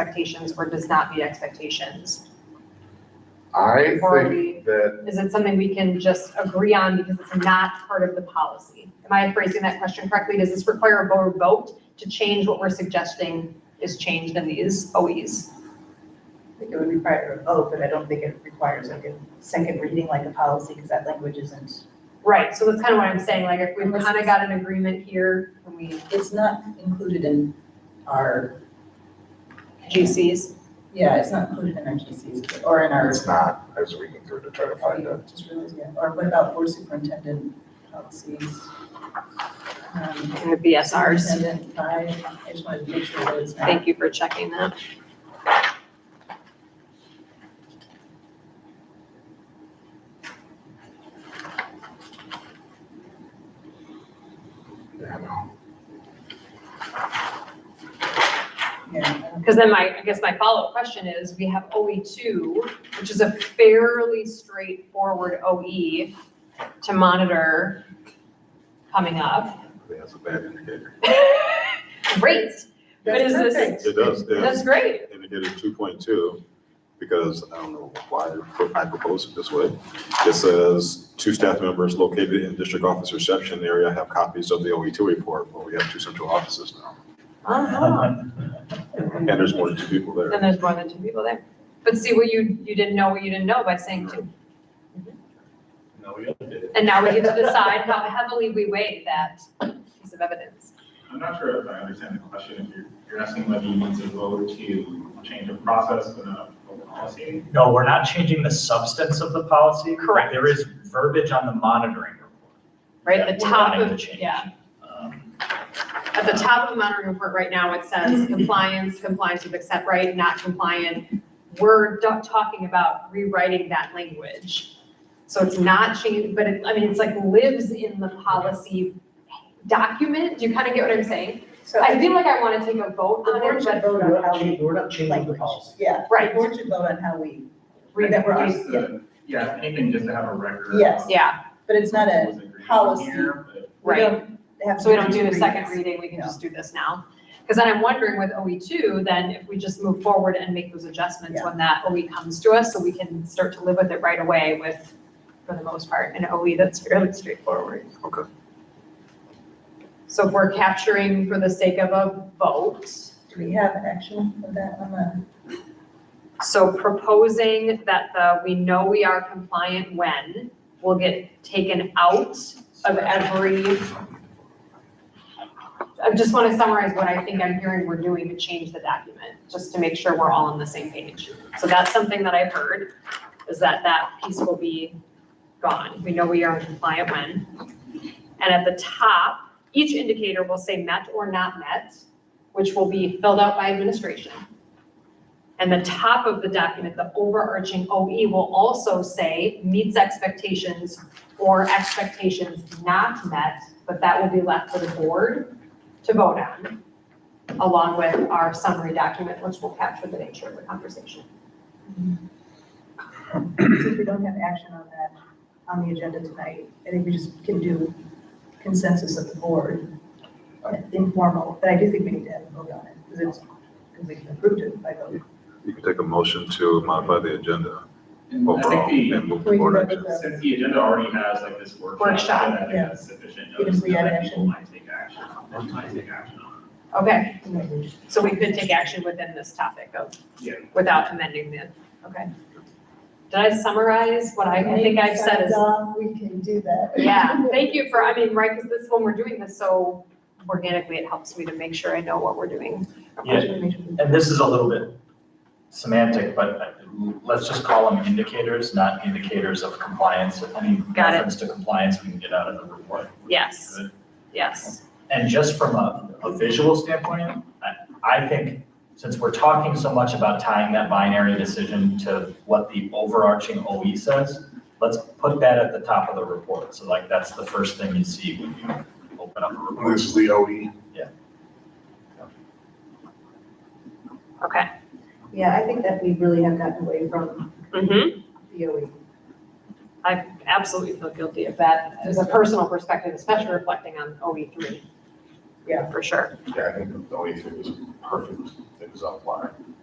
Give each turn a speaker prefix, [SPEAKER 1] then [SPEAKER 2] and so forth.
[SPEAKER 1] expectations or does not meet expectations?
[SPEAKER 2] I
[SPEAKER 1] Or
[SPEAKER 2] think
[SPEAKER 1] we,
[SPEAKER 2] that,
[SPEAKER 1] is it something we can just agree on because it's not part of the policy? Am I phrasing that question correctly? Does this require a board vote to change what we're suggesting is changed in these OEs?
[SPEAKER 3] I think it would require a vote, but I don't think it requires like a second reading like a policy, because that language isn't.
[SPEAKER 1] Right, so that's kind of what I'm saying, like if we've kind of got an agreement here, when we,
[SPEAKER 4] It's not included in our,
[SPEAKER 1] GCs,
[SPEAKER 4] yeah, it's not included in our GCs or in our,
[SPEAKER 2] it's not, as we can through to try to find it.
[SPEAKER 4] just realized, yeah. Or what about board superintendent policies? Um,
[SPEAKER 1] and the BSRs.
[SPEAKER 4] Superintendent five, I just wanted to make sure that it's not.
[SPEAKER 1] Thank you for checking that.
[SPEAKER 2] Yeah, no.
[SPEAKER 4] Yeah.
[SPEAKER 1] Because then my, I guess my follow-up question is, we have OE two, which is a fairly straightforward OE to monitor coming up.
[SPEAKER 5] That's a bad indicator.
[SPEAKER 1] Great, But is this-
[SPEAKER 4] That's perfect.
[SPEAKER 5] It does, yeah.
[SPEAKER 1] that's great.
[SPEAKER 5] Indicator two point two, because I don't know why they're pro- I proposed it this way. It says, two staff members located in district office reception area have copies of the OE two report, but we have two central offices now.
[SPEAKER 1] Uh-huh.
[SPEAKER 5] And there's more than two people there.
[SPEAKER 1] Then there's more than two people there. But see, what you, you didn't know what you didn't know by saying two.
[SPEAKER 6] No, we did it.
[SPEAKER 1] And now we get to decide how heavily we weigh that piece of evidence.
[SPEAKER 6] I'm not sure if I understand the question, if you're, you're asking whether you want to vote to change a process but not a policy.
[SPEAKER 7] No, we're not changing the substance of the policy.
[SPEAKER 1] Correct.
[SPEAKER 7] There is verbiage on the monitoring report.
[SPEAKER 1] Right,
[SPEAKER 7] that
[SPEAKER 1] the
[SPEAKER 7] we're
[SPEAKER 1] top
[SPEAKER 7] wanting to
[SPEAKER 1] of-
[SPEAKER 7] change.
[SPEAKER 1] yeah.
[SPEAKER 7] Um,
[SPEAKER 1] At the top of the monitoring report right now, it
[SPEAKER 4] Mm-hmm.
[SPEAKER 1] says compliance, compliance with accept right, not compliant. We're do- talking about rewriting that language. So it's not changed, but it, I mean, it's like lives in the policy document. Do you kind of get what I'm saying?
[SPEAKER 4] So
[SPEAKER 1] I feel like I want to take a vote
[SPEAKER 4] the
[SPEAKER 1] on
[SPEAKER 4] board
[SPEAKER 1] it,
[SPEAKER 4] should
[SPEAKER 1] but
[SPEAKER 4] vote
[SPEAKER 8] We're
[SPEAKER 4] on
[SPEAKER 8] not
[SPEAKER 4] how
[SPEAKER 8] changing,
[SPEAKER 4] we,
[SPEAKER 8] we're not changing the policy.
[SPEAKER 4] yeah.
[SPEAKER 1] Right.
[SPEAKER 4] The board should vote on how we,
[SPEAKER 1] read
[SPEAKER 4] that we're on.
[SPEAKER 6] Just the- Yeah, anything just to have a record.
[SPEAKER 4] Yes.
[SPEAKER 1] Yeah,
[SPEAKER 4] but it's not a,
[SPEAKER 6] Was agreed
[SPEAKER 4] policy.
[SPEAKER 6] here, but-
[SPEAKER 4] we
[SPEAKER 1] right.
[SPEAKER 4] don't have.
[SPEAKER 1] So we don't
[SPEAKER 4] to
[SPEAKER 1] do a second
[SPEAKER 4] read.
[SPEAKER 1] reading, we can just do this now. Because then I'm wondering with OE two, then if we just move forward and make those adjustments
[SPEAKER 4] Yeah.
[SPEAKER 1] when that OE comes to us, so we can start to live with it right away with, for the most part, an OE that's fairly straightforward.
[SPEAKER 5] Okay.
[SPEAKER 1] So if we're capturing for the sake of a vote,
[SPEAKER 4] Do we have an action of that on the?
[SPEAKER 1] so proposing that the, we know we are compliant when, will get taken out of every I just want to summarize what I think I'm hearing we're doing to change the document, just to make sure we're all on the same page. So that's something that I've heard, is that that piece will be gone. We know we are compliant when. And at the top, each indicator will say met or not met, which will be filled out by administration. And the top of the document, the overarching OE will also say meets expectations or expectations not met, but that will be left for the board to vote on, along with our summary document, which will capture the nature of the conversation.
[SPEAKER 4] Since we don't have action on that on the agenda tonight, I think we just can do consensus of the board, uh, informal, but I do think we need to have a vote on it, because it's, because we approved it by vote.
[SPEAKER 5] You can take a motion to modify the agenda
[SPEAKER 6] And I
[SPEAKER 5] overall
[SPEAKER 6] think
[SPEAKER 5] and
[SPEAKER 6] the,
[SPEAKER 5] move to board action.
[SPEAKER 6] since the agenda already has like this workshop,
[SPEAKER 1] Workshop,
[SPEAKER 6] then I think
[SPEAKER 4] yeah.
[SPEAKER 6] that's sufficient
[SPEAKER 4] Even
[SPEAKER 6] notice
[SPEAKER 4] if we add
[SPEAKER 6] that
[SPEAKER 4] action.
[SPEAKER 6] people might take action, on it, might take action on.
[SPEAKER 1] Okay, so we could take action within this topic of,
[SPEAKER 6] Yeah.
[SPEAKER 1] without amending the, okay. Did I summarize what I, I think I've said is,
[SPEAKER 4] We can do that.
[SPEAKER 1] yeah, thank you for, I mean, right, because this, when we're doing this so organically, it helps me to make sure I know what we're doing.
[SPEAKER 7] Yeah. And this is a little bit semantic, but uh, let's just call them indicators, not indicators of compliance. Any
[SPEAKER 1] Got it.
[SPEAKER 7] reference to compliance, we can get out of the report.
[SPEAKER 1] Yes, yes,
[SPEAKER 7] And just from a, a visual standpoint, I, I think, since we're talking so much about tying that binary decision to what the overarching OE says, let's put that at the top of the report. So like, that's the first thing you see when you open up a report.
[SPEAKER 2] This is the OE.
[SPEAKER 1] okay.
[SPEAKER 4] Yeah, I think that we really have gotten away from
[SPEAKER 1] Mm-hmm.
[SPEAKER 4] the OE.
[SPEAKER 1] I absolutely feel guilty of that as a personal perspective, especially reflecting on OE three.
[SPEAKER 4] Yeah.
[SPEAKER 1] For sure.
[SPEAKER 2] E Yeah, I think the OE two is perfect. It was on fire.